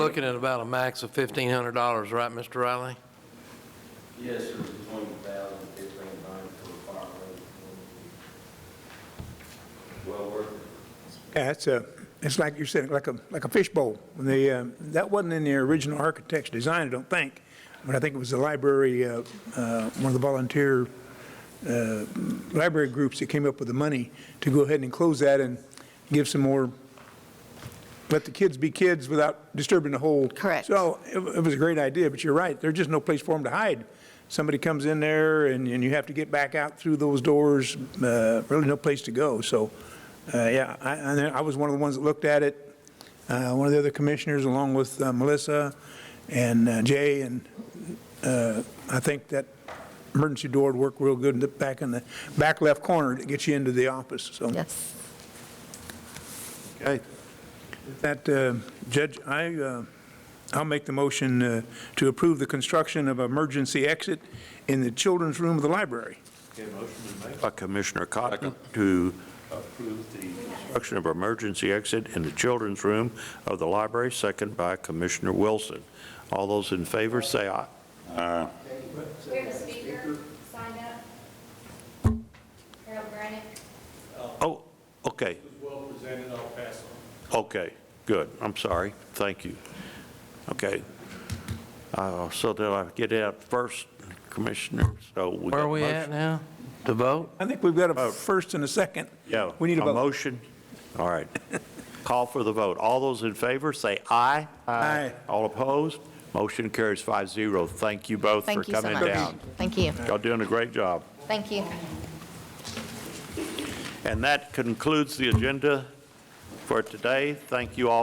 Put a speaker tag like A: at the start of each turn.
A: Looking at about a max of $1,500, right, Mr. Riley?
B: Yes, sir, between a thousand and fifteen hundred for a fire rate. Well worth it.
C: Yeah, it's a, it's like you said, like a, like a fishbowl. The, um, that wasn't in the original architect's design, I don't think, but I think it was the library, uh, uh, one of the volunteer uh, library groups that came up with the money to go ahead and close that and give some more, let the kids be kids without disturbing the whole.
D: Correct.
C: So it wa- it was a great idea, but you're right, there's just no place for them to hide. Somebody comes in there and, and you have to get back out through those doors, uh, really no place to go, so, uh, yeah, I, I know- I was one of the ones that looked at it, uh, one of the other commissioners, along with uh, Melissa and uh, Jay, and uh, I think that emergency door would work real good in the back in the back left corner to get you into the office, so.
D: Yes.
C: Okay. That, uh, Judge, I, uh, I'll make the motion uh, to approve the construction of emergency exit in the children's room of the library.
E: Okay, motion been made by Commissioner Cotton to approve the construction of emergency exit in the children's room of the library, second by Commissioner Wilson. All those in favor, say aye.
F: We have a speaker signed up. Harold Granick.
E: Oh, okay. well presented, I'll pass on. Okay, good, I'm sorry, thank you. Okay. Uh, So did I get out first, Commissioner? So we got
A: Where are we
E: a
A: at
E: motion?
A: now? To vote?
C: I think we've got a first and a second.
E: Yeah.
C: We need a vote.
E: motion? All right. Call for the vote. All those in favor, say aye.
C: Aye.
E: All opposed? Motion carries 5-0. Thank you both for
D: Thank you so
E: coming
D: much.
E: down.
D: Thank you.
E: Y'all doing a great job.
D: Thank you.
E: And that concludes the agenda for today. Thank you all